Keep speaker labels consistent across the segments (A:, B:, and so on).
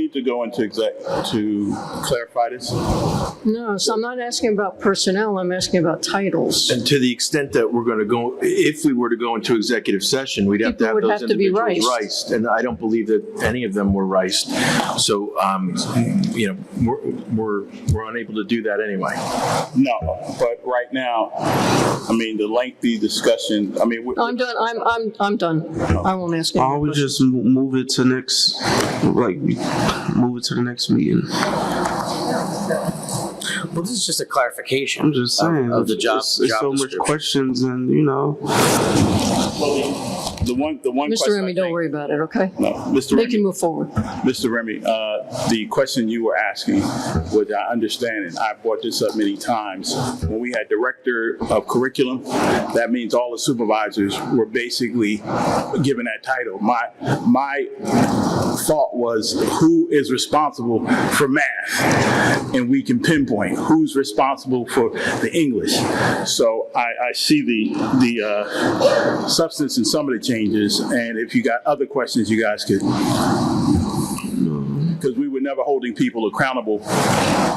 A: Need to go into exec to clarify this.
B: No, so I'm not asking about personnel, I'm asking about titles.
C: And to the extent that we're going to go, if we were to go into executive session, we'd have to
B: People
C: have
B: would
C: those
B: have to be
C: individuals
B: riced.
C: riced. And I don't believe that any of them were riced. So, um, you know, we're, we're, we're unable to do that anyway.
A: No, but right now, I mean, the lengthy discussion, I mean, we-
B: I'm done, I'm, I'm, I'm done. I won't ask any
A: Um,
D: Why don't
B: more
D: we
B: questions.
D: just move it to next, like, move it to the next meeting?
E: Well, this is just a clarification.
D: I'm just
E: of-
D: saying.
E: Of the job,
D: It's it's
E: job
D: so much
E: description.
D: questions and, you know,
A: the one, the one question.
B: Mr.
A: I
B: Remy, don't
A: think-
B: worry about it, okay?
A: No, Mr.
B: They
A: Remy.
B: can move forward.
A: Mr. Remy, uh, the question you were asking was, I understand, and I brought this up many times, when we had director of curriculum, that means all the supervisors were basically given that title. My, my thought was, who is responsible for math? And we can pinpoint who's responsible for the English. So I, I see the, the uh, substance in some of the changes, and if you got other questions, you guys could because we were never holding people accountable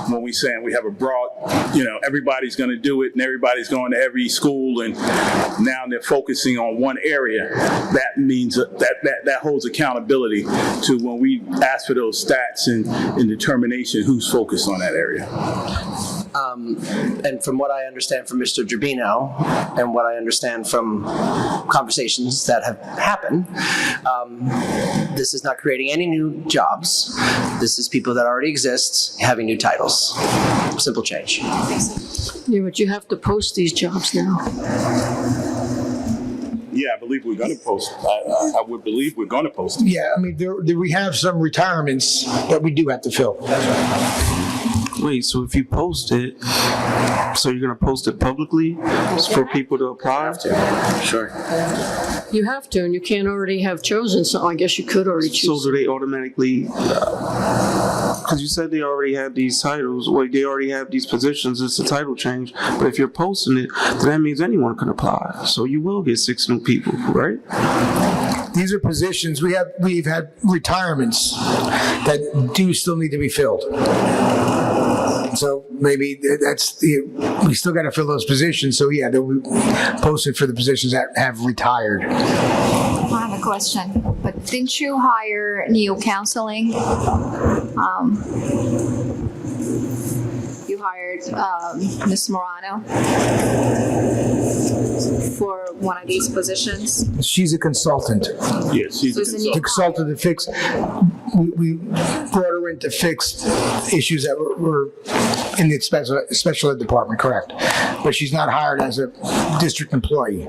A: when we saying we have a broad, you know, everybody's going to do it and everybody's going to every school and now they're focusing on one area. That means that that, that holds accountability to when we ask for those stats and, and determination who's focused on that area.
E: Um, and from what I understand from Mr. Gerbino and what I understand from conversations that have happened, um, this is not creating any new jobs. This is people that already exist having new titles. Simple change.
B: Yeah, but you have to post these jobs now.
A: Yeah, I believe we're going to post. I, I, I would believe we're going to post. it.
F: Yeah, I mean, there, there- we have some retirements that we do have to fill.
D: wait, so if you post it, so you're gonna post it publicly for people to apply?
E: Sure.
B: You have to, and you can't already have chosen, so I guess you could already
D: So
B: choose.
D: do they automatically? Because you said they already have these titles, like they already have these positions. It's a title change, but if you're posting it, then that means anyone can apply. So you will get six new people, right?
F: These are positions, we have, we've had retirements that do still need to be filled. So maybe th- that's the, we still got to fill those positions. So yeah, they'll be posted for the positions that have retired.
G: I have a question, but didn't you hire Neo Counseling? Um, you hired um, Ms. Morano for one of these positions.
F: She's a consultant,
A: Yes, she's a
G: So it's a
A: consultant.
F: The consultant to fix, we, we brought her in to fix issues that were- were in the special, special ed department, correct? But she's not hired as a district employee.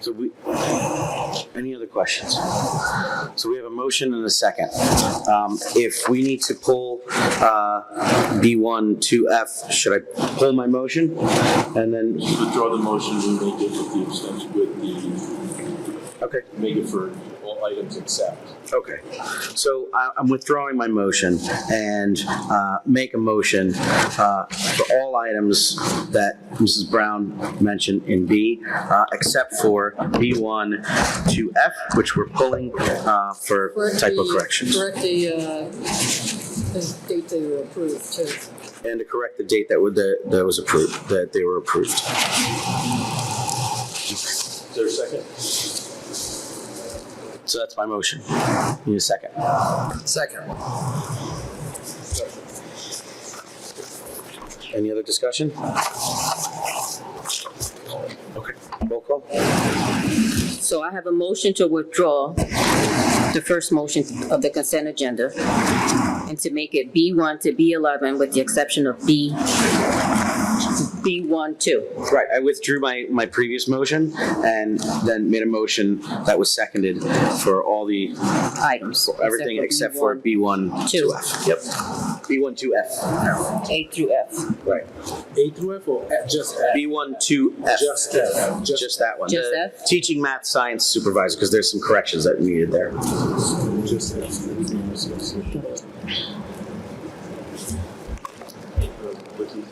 E: So we, any other questions? So we have a motion and a second. Um, if we need to pull, uh, B one to F, should I pull my motion? And then,
H: withdraw the motion and make it with the abstention, with the,
E: okay,
H: make it for all items except.
E: okay. So I, I'm withdrawing my motion and, uh, make a motion, uh, for all items that Mrs. Brown mentioned in B, uh, except for B one to F, which we're pulling, uh, for
I: E
E: typo corrections.
B: Correct the, uh, date they were approved, too.
E: And to correct the date that would, that that was approved, that they were approved.
H: Is there a second?
E: So that's my motion. Need a second.
F: Second.
E: Any other discussion? Okay, roll call.
I: So I have a motion to withdraw the first motion of the consent agenda and to make it B1 to B11 with the exception of B, B1, 2.
E: Right, I withdrew my, my previous motion and then made a motion that was seconded for all the,
I: items.
E: for everything except for
I: B1,
E: B1
I: Two.
E: to F. Yep. B1 to F.
I: A through F.
E: Right.
H: A through F or just
E: B1 to F.
H: Just F.
E: Just that one.
I: Just
E: The
I: F?
E: Teaching math science supervisor, because there's some corrections that needed there.
H: Just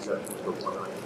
H: F.